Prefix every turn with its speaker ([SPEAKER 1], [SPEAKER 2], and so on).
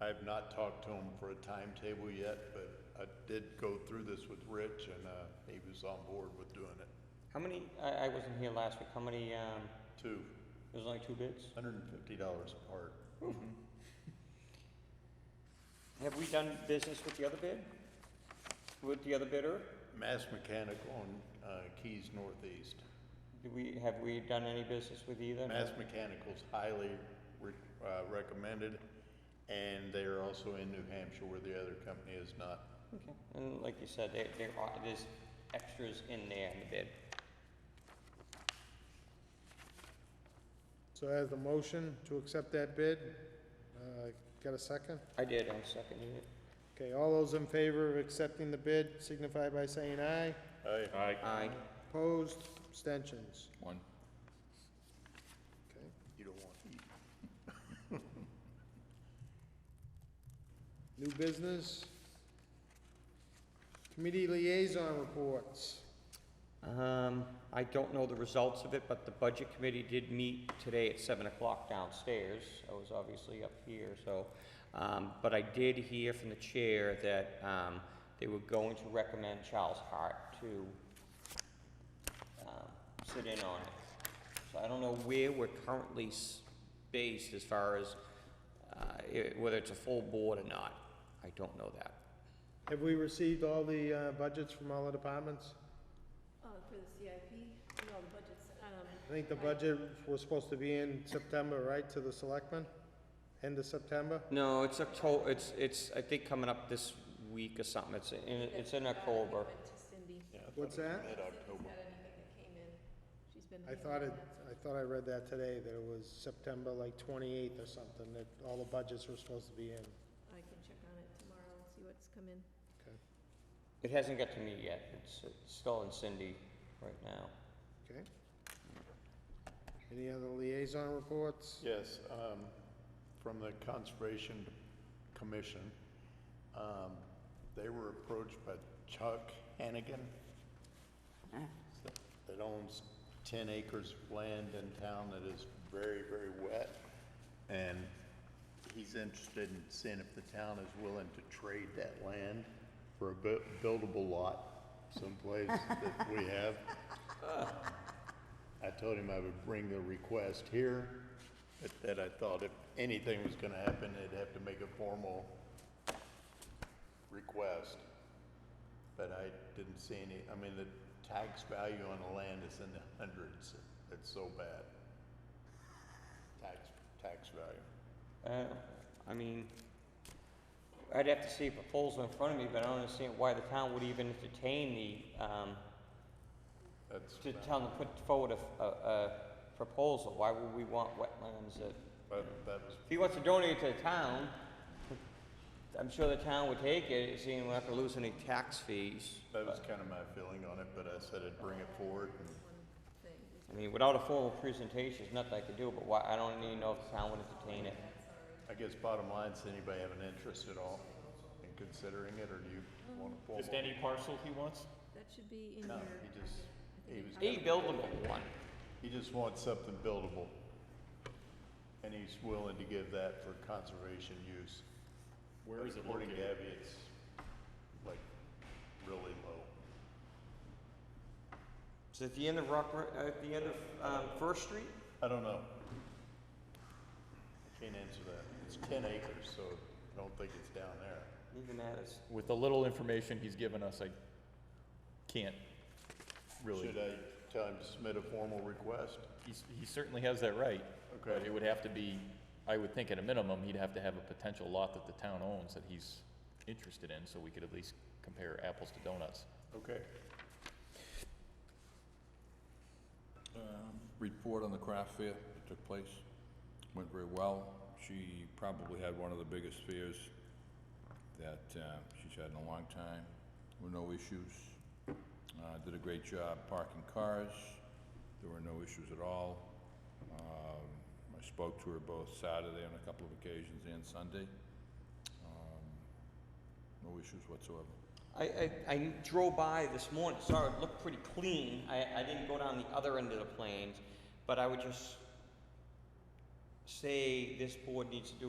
[SPEAKER 1] I have not talked to him for a timetable yet, but I did go through this with Rich and, uh, he was on board with doing it.
[SPEAKER 2] How many, I, I wasn't here last week, how many, um,
[SPEAKER 1] Two,
[SPEAKER 2] there was only two bids?
[SPEAKER 1] hundred and fifty dollars a part.
[SPEAKER 2] Have we done business with the other bid? With the other bidder?
[SPEAKER 1] Mass Mechanical on, uh, Keys Northeast.
[SPEAKER 2] Do we, have we done any business with either?
[SPEAKER 1] Mass Mechanical's highly re- uh, recommended, and they are also in New Hampshire where the other company is not.
[SPEAKER 2] Okay, and like you said, there, there are, there's extras in there in the bid.
[SPEAKER 3] So as the motion to accept that bid, uh, got a second?
[SPEAKER 2] I did, I seconded it.
[SPEAKER 3] Okay, all those in favor of accepting the bid signify by saying aye.
[SPEAKER 1] Aye.
[SPEAKER 4] Aye.
[SPEAKER 2] Aye.
[SPEAKER 3] Opposed, abstentions.
[SPEAKER 4] One.
[SPEAKER 3] Okay.
[SPEAKER 1] You don't want to eat.
[SPEAKER 3] New business. Committee liaison reports.
[SPEAKER 2] Um, I don't know the results of it, but the budget committee did meet today at seven o'clock downstairs. I was obviously up here, so, um, but I did hear from the chair that, um, they were going to recommend Charles Hart to, um, sit in on it. So I don't know where we're currently s- based as far as, uh, i- whether it's a full board or not. I don't know that.
[SPEAKER 3] Have we received all the uh, budgets from all the departments?
[SPEAKER 5] Uh, for the CIP, no, the budget's, um,
[SPEAKER 3] I think the budget was supposed to be in September, right, to the selectmen? End of September?
[SPEAKER 2] No, it's Octo, it's, it's, I think coming up this week or something, it's in, it's in October.
[SPEAKER 5] went to Cindy.
[SPEAKER 1] Yeah, I thought
[SPEAKER 3] What's
[SPEAKER 1] it was
[SPEAKER 3] that?
[SPEAKER 1] Mid-October.
[SPEAKER 5] Cindy's got anything that came in, she's been.
[SPEAKER 3] I thought it, I thought I read that today, that it was September like twenty-eighth or something, that all the budgets were supposed to be in.
[SPEAKER 5] I can check on it tomorrow and see what's come in.
[SPEAKER 2] It hasn't got to me yet, it's, it's still in Cindy right now.
[SPEAKER 3] Okay. Any other liaison reports?
[SPEAKER 1] Yes, um, from the Conservation Commission, um, they were approached by Chuck Hannigan that owns ten acres of land in town that is very, very wet. And he's interested in seeing if the town is willing to trade that land for a bu- buildable lot someplace that we have. I told him I would bring the request here, but that I thought if anything was gonna happen, they'd have to make a formal request. But I didn't see any, I mean, the tax value on the land is in the hundreds, it's so bad. Tax, tax value.
[SPEAKER 2] Uh, I mean, I'd have to see a proposal in front of me, but I don't understand why the town would even entertain the, um,
[SPEAKER 1] That's,
[SPEAKER 2] to tell them to put forward a, a, a proposal, why would we want wetlands that,
[SPEAKER 1] but that was,
[SPEAKER 2] if he wants to donate to the town, I'm sure the town would take it, seeing we're not gonna lose any tax fees.
[SPEAKER 1] that was kind of my feeling on it, but I said I'd bring it forward and
[SPEAKER 5] Thing.
[SPEAKER 2] I mean, without a formal presentation, there's nothing I could do, but why, I don't even know if the town would entertain it.
[SPEAKER 1] I guess bottom line, does anybody have an interest at all in considering it, or do you want to formal?
[SPEAKER 4] Just any parcel he wants?
[SPEAKER 5] That should be in
[SPEAKER 1] No,
[SPEAKER 5] your.
[SPEAKER 1] he just, he was.
[SPEAKER 2] A buildable one.
[SPEAKER 1] He just wants something buildable. And he's willing to give that for conservation use.
[SPEAKER 4] Where is it
[SPEAKER 1] According to
[SPEAKER 4] located?
[SPEAKER 1] Abby, it's like really low.
[SPEAKER 2] It's at the end of Rock, Ri- uh, at the end of, um, First Street?
[SPEAKER 1] I don't know. I Can't answer that. It's ten acres, so I don't think it's down there.
[SPEAKER 2] Even that is,
[SPEAKER 4] With the little information he's given us, I can't really.
[SPEAKER 1] Should I tell him to submit a formal request?
[SPEAKER 4] He's, he certainly has that right. But
[SPEAKER 1] Okay.
[SPEAKER 4] it would have to be, I would think at a minimum, he'd have to have a potential lot that the town owns that he's interested in, so we could at least compare apples to donuts.
[SPEAKER 1] Okay.
[SPEAKER 6] um, report on the craft fair that took place. Went very well. She probably had one of the biggest fairs that uh, she's had in a long time, with no issues. Uh, Did a great job parking cars. There were no issues at all. Um, I spoke to her both Saturday on a couple of occasions and Sunday. Um, No issues whatsoever.
[SPEAKER 2] I, I, I drove by this morning, saw it looked pretty clean, I, I didn't go down the other end of the plains, but I would just say this board needs to do